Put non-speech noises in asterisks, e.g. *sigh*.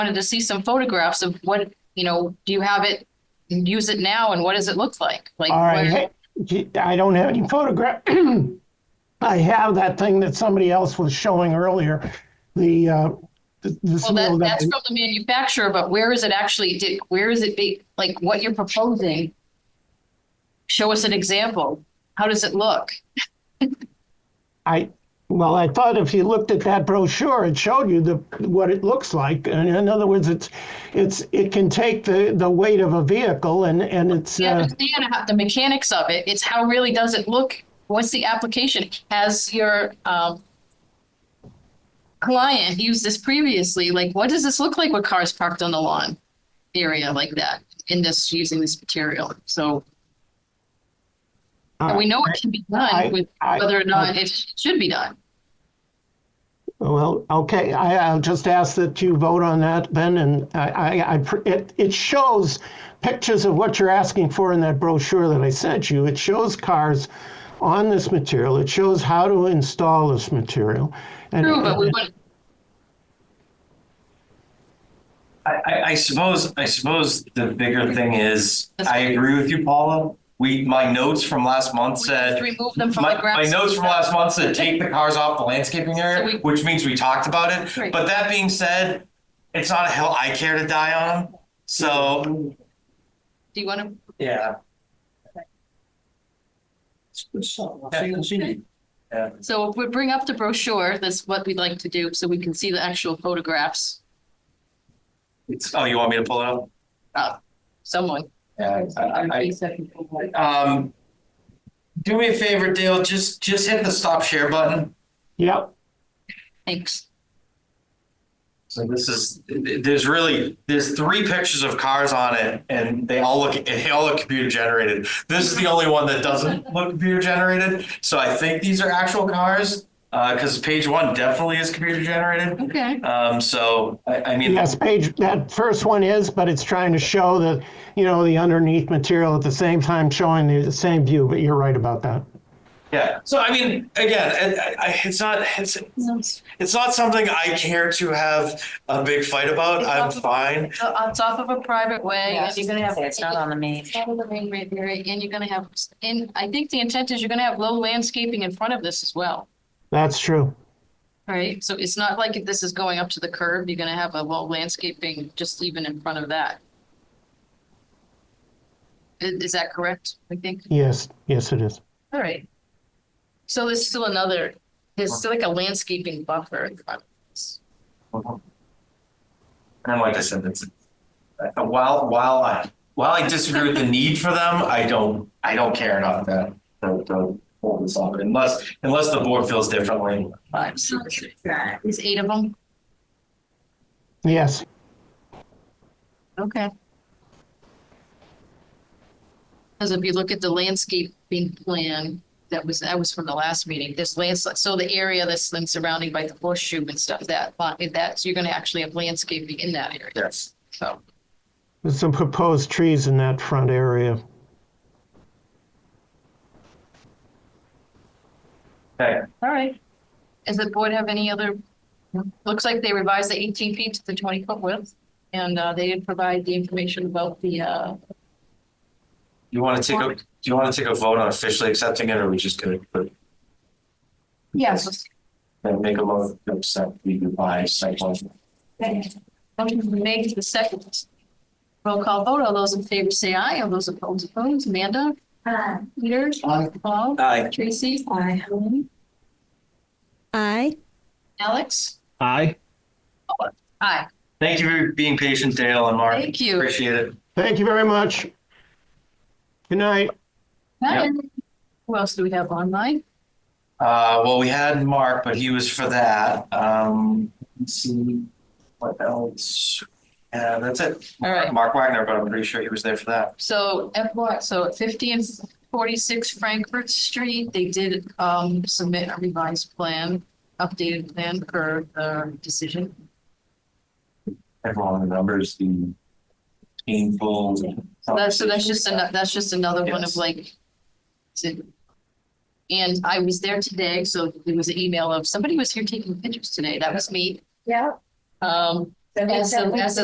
wanted to see some photographs of what, you know, do you have it? Use it now and what does it look like? Like, All right, what- hey, I don't have any photograph. *clears throat* I have that thing that somebody else was showing earlier, the, uh, th- this well, that, little that's guy. from the manufacturer, but where is it actually, did, where is it be, like what you're proposing? Show us an example. How does it look? I, well, I thought if you looked at that brochure, it showed you the, what it looks like. And in other words, it's, it's, it can take the, the weight of a vehicle and, and it's, You uh, understand how, the mechanics of it, it's how really does it look? What's the application? Has your, um, client used this previously? Like, what does this look like with cars parked on the lawn area like that in this, using this material? So and we know it can be I- done with uh, I- whether or not it should be done. Well, okay, I, I'll just ask that you vote on that, Ben, and I, I, I, pr- it, it shows pictures of what you're asking for in that brochure that I sent you. It shows cars on this material. It shows how to install this material. And True, but we want, I, I, I suppose, I suppose the bigger thing is, I agree with you, Paula. We, my notes from last month we have to said, remove them from the my, my grass. notes from last month said, take the cars off the landscaping So we- area, which means we talked about Right. it. But that being said, it's not a hill I care to die on. So, Do you want to, yeah, yeah. so if we bring up the brochure, that's what we'd like to do, so we can see the actual photographs. It's, oh, you want me to pull it up? Someone. Yeah. I- I- I- Um, do me a favor, Dale, just, just hit the stop share button. Yep, Thanks. So this is, there's really, there's three pictures of cars on it and they all look, they all look computer generated. This is the only one that doesn't look computer generated. So I think these are actual cars, uh, cause page one definitely is computer generated. Okay. Um, so I, I mean, yes, page, that first one is, but it's trying to show that, you know, the underneath material at the same time showing the the same view, but you're right about that. yeah. So I mean, again, I, I- I, it's not, it's, It's it's not something I care to have a big fight about. I'm fine. on top of a private way Yeah, and you're gonna have. It's not on the main. It's not on the main road area, and you're gonna have, and I think the intent is you're gonna have low landscaping in front of this as well, That's true. right? So it's not like if this is going up to the curb, you're gonna have a low landscaping just even in front of that. I- Is, that correct, I think? Yes, yes, it is. All right. So there's still another, there's still like a landscaping buffer in front of this. And like I said, it's, uh, while, while I, while I disagree *laughs* with the need for them, I don't, I don't care enough to, to, to hold this up unless, unless the board feels differently. Five, six, there's eight of them, Yes, okay. Because if you look at the landscaping plan, that was, that was from the last meeting, this lands, so the area that's then surrounding by the horseshoe and stuff, that, lot- that's, you're gonna actually have landscaping in that area, Yes. so. there's some proposed trees in that front area. Okay, All right. Does the board have any other, looks like they revised the eighteen feet to the twenty foot width, and, uh, they did provide the information about the, uh, you want to take a, do you want to take a vote on officially accepting it or are we just gonna put- yes. and make a motion to accept the revised site plan? Motion been made to the second. Roll call vote. All those in favor say aye. All those opposed, opposed. Amanda? Aye. Peter? Aye. Paul? Aye. Tracy? Aye. Aye. Alex? Aye. Aye. Thank you for being patient, Dale and Mark. Thank you. Appreciate it. Thank you very much. Good night. Yeah. Who else do we have online? Uh, well, we had Mark, but he was for that. Um, let's see what else. Yeah, that's it. All right. Mark Wagner, but I'm pretty sure he was there for that. So F what? So at fifty and forty-six Frankfurt Street, they did um submit a revised plan, updated plan per the decision. Everyone remembers the painful. So that's, so that's just, ano- that's just another one of Yes. like. to- And I was there today, so there was an email of, somebody was here taking pictures today, that was me. Yeah. Um, That As makes the, sense. as the